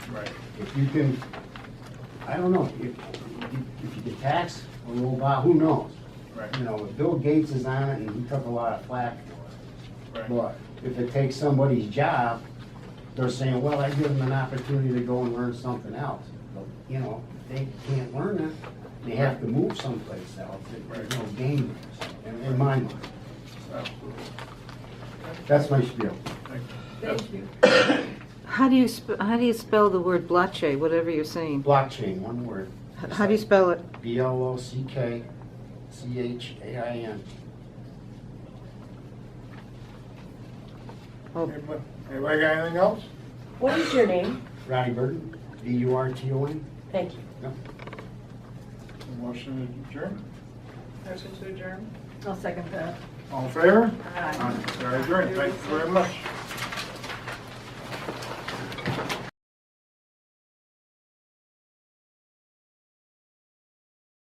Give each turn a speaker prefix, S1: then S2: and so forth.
S1: Right.
S2: If you can, I don't know, if, if you can tax a little bar, who knows?
S1: Right.
S2: You know, if Bill Gates is on it and he took a lot of flack for it.
S1: Right.
S2: But if it takes somebody's job, they're saying, well, I give them an opportunity to go and learn something else. But, You know, if they can't learn it, they have to move someplace else, there's no gain, there, in in my mind.
S1: Absolutely.
S2: That's my spiel.
S1: Thank you. Yes.
S3: Thank you.
S4: How do you, sp- how do you spell the word blockchain, whatever you're saying?
S2: Blockchain, one word.
S4: H- How do you spell it?
S2: B L O C K C H A I N.
S4: Oh.
S1: Anybody anybody got anything else?
S3: What is your name?
S2: Ronnie Burton, B U R T O N.
S3: Thank you.
S1: Motion adjourned.
S5: Motion to adjourn?
S3: I'll second that.
S1: All in favor? Aye. Very adjourned. Thank you very much.